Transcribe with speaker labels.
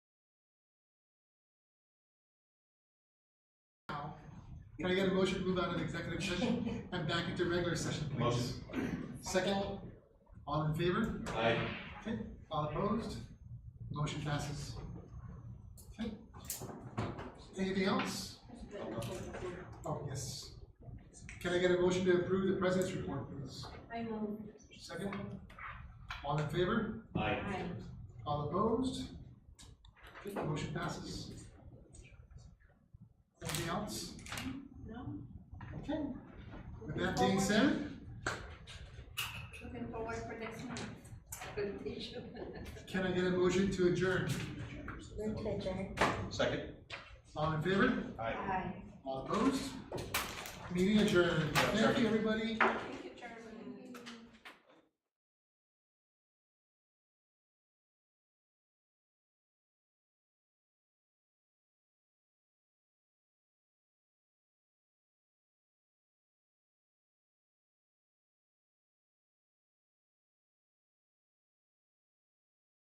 Speaker 1: Can I get a motion to move out of executive session and back into regular session, please?
Speaker 2: Motion.
Speaker 1: Second, all in favor?
Speaker 2: Aye.
Speaker 1: Okay, all opposed? Motion passes. Okay. Anything else? Oh, yes. Can I get a motion to approve the president's report, please?
Speaker 3: I move.
Speaker 1: Second, all in favor?
Speaker 2: Aye.
Speaker 3: Aye.
Speaker 1: All opposed? Okay, the motion passes. Anything else?
Speaker 3: No?
Speaker 1: Okay. With that being said,
Speaker 3: Looking forward for next month.
Speaker 1: can I get a motion to adjourn?
Speaker 3: Move to adjourn.
Speaker 2: Second?
Speaker 1: All in favor?
Speaker 2: Aye.
Speaker 3: Aye.
Speaker 1: All opposed? Meeting adjourned. Thank you, everybody.